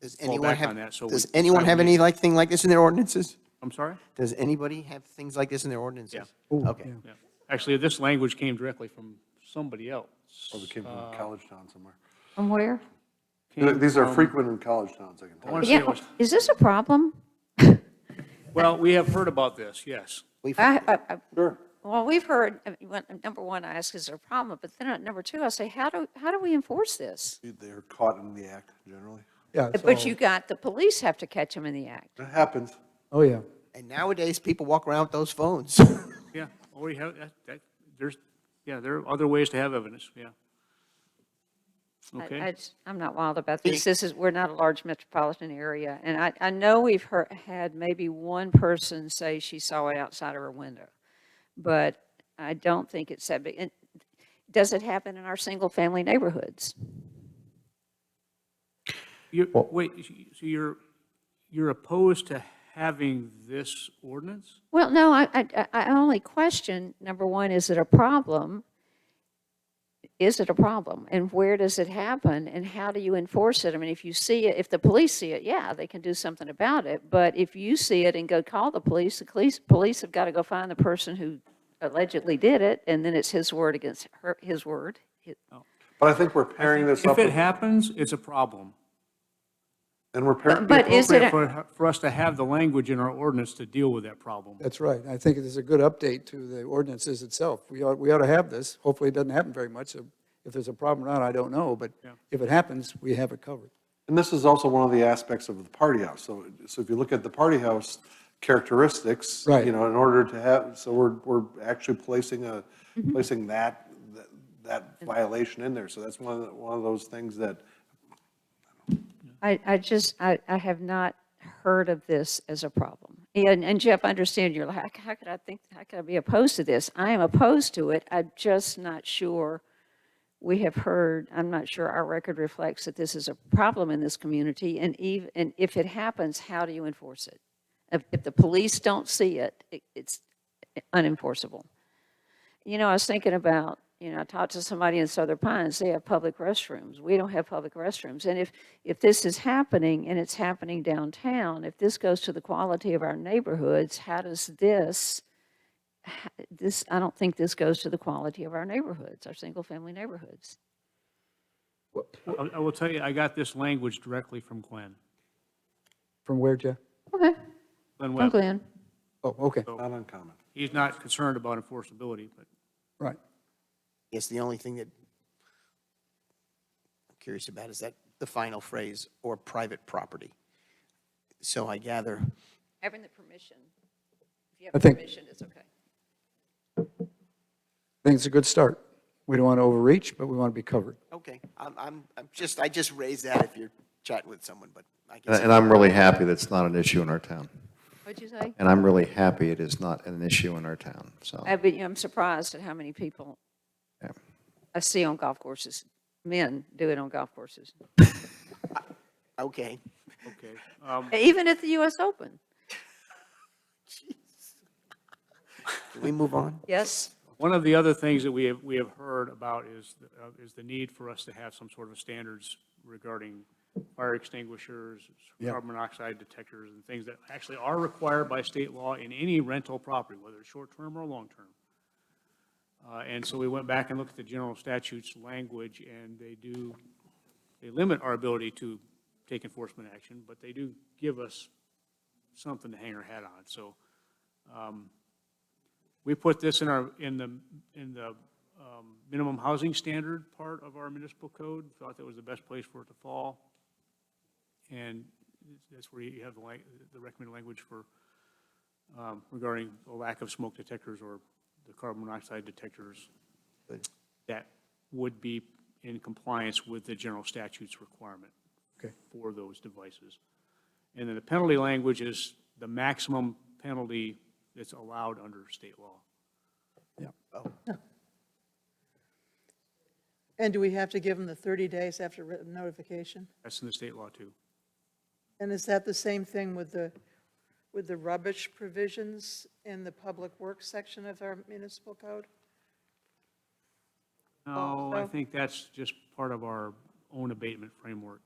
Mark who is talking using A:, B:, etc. A: Does
B: fall
A: anyone
B: back
A: have,
B: on that, so. we-
A: does anyone have any like thing like this in their ordinances?
B: I'm sorry?
A: Does anybody have things like this in their ordinances?
C: Ooh,
A: Okay.
C: yeah.
B: Yeah. Actually, this language came directly from somebody else.
D: Probably Oh, came from college town somewhere.
E: From where?
D: Th- These are frequent in college towns, I can
B: I
D: tell you.
B: want to say it
E: Yeah,
B: was,
E: is this a problem?
B: well, we have heard about this, yes.
A: We've-
E: I, I- I-
D: Sure.
E: well, we've heard, I mean, when- number one, I ask, is there a problem? But then, uh, number two, I say, how do, how do we enforce this?
D: They're caught in the act generally.
C: Yeah,
E: But
C: so-
E: you got, the police have to catch them in the act.
D: It happens.
C: Oh, yeah.
A: And nowadays, people walk around with those phones.
B: Yeah, or you have, that, that, there's, yeah, there are other ways to have evidence, yeah.
E: I-
B: Okay.
E: I just- I'm not wild about this. This is, we're not a large metropolitan area. And I, I know we've heard, had maybe one person say she saw it outside of her window. But I don't think it's that big. And Does it happen in our single-family neighborhoods?
B: You, wait, so you're, you're opposed to having this ordinance?
E: Well, no, I, I, I- I only question, number one, is it a problem? Is it a problem? And where does it happen? And how do you enforce it? I mean, if you see it, if the police see it, yeah, they can do something about it. But if you see it and go call the police, the police, police have got to go find the person who allegedly did it, and then it's his word against her, his word. It-
D: But I think we're pairing this up,
B: If it
D: with-
B: happens, it's a problem.
D: and we're pairing,
E: But is it,
B: Appropriate
E: a-
B: for, for us to have the language in our ordinance to deal with that problem.
C: That's right. I think it is a good update to the ordinances itself. We ought, we ought to have this. Hopefully, it doesn't happen very much. So If there's a problem or not, I don't know, but if it happens, we have it covered.
D: and this is also one of the aspects of the party house. So, so if you look at the party house characteristics,
C: Right.
D: you know, in order to have, so we're, we're actually placing a,
E: Mm-hmm.
D: placing that, that- that violation in there. So that's one of, the- one of those things that
E: I, I just, I, I have not heard of this as a problem. And, and Jeff, I understand you're like, how could I think, how could I be opposed to this? I am opposed to it. I'm just not sure we have heard, I'm not sure our record reflects that this is a problem in this community. And even, and if it happens, how do you enforce it? If, if the police don't see it, it, it's unenforceable. You know, I was thinking about, you know, I talked to somebody in Southern Pines, they have public restrooms. We don't have public restrooms. And if, if this is happening and it's happening downtown, if this goes to the quality of our neighborhoods, how does this, h- this, I don't think this goes to the quality of our neighborhoods, our single-family neighborhoods.
B: I, I will tell you, I got this language directly from Glenn.
C: From where, Jeff?
E: Okay,
B: Glenn
E: I'm
B: Webb.
E: Glenn.
C: Oh, okay,
D: not uncommon.
B: He's not concerned about enforceability, but
C: right.
A: It's the only thing that I'm curious about is that the final phrase, or private property. So I gather,
E: Having the permission, if you
C: I
E: have
C: think-
E: permission, it's okay.
C: I think it's a good start. We don't want to overreach, but we want to be covered.
A: okay, I'm, I'm, I'm just, I just raised that if you're chatting with someone, but I
F: And
A: guess.
F: and I'm really happy that's not an issue in our town.
E: What'd you say?
F: And I'm really happy it is not an issue in our town, so.
E: I, but, you know, I'm surprised at how many people
F: yeah.
E: I see on golf courses, men do it on golf courses,
A: Okay.
B: okay. Um,
E: even at the US Open.
A: Can we move on?
E: Yes,
B: One of the other things that we have, we have heard about is, the- uh, is the need for us to have some sort of standards regarding fire extinguishers, carbon monoxide detectors, and things that actually are required by state law in any rental property, whether it's short-term or long-term. Uh, And so we went back and looked at the general statutes language, and they do, they limit our ability to take enforcement action, but they do give us something to hang our hat on. So we put this in our, in the, in the um, minimum housing standard part of our municipal code, thought that was the best place for it to fall. And that's where you have the, lang- the recommended language for, um, regarding the lack of smoke detectors or the carbon monoxide detectors that would be in compliance with the general statutes requirement
C: Okay.
B: for those devices. And then the penalty language is the maximum penalty that's allowed under state law.
G: And do we have to give them the 30 days after written notification?
B: That's in the state law, too.
G: And is that the same thing with the, with the rubbish provisions in the public works section of our municipal code?
B: No, I
G: Also-
B: think that's just part of our own abatement framework.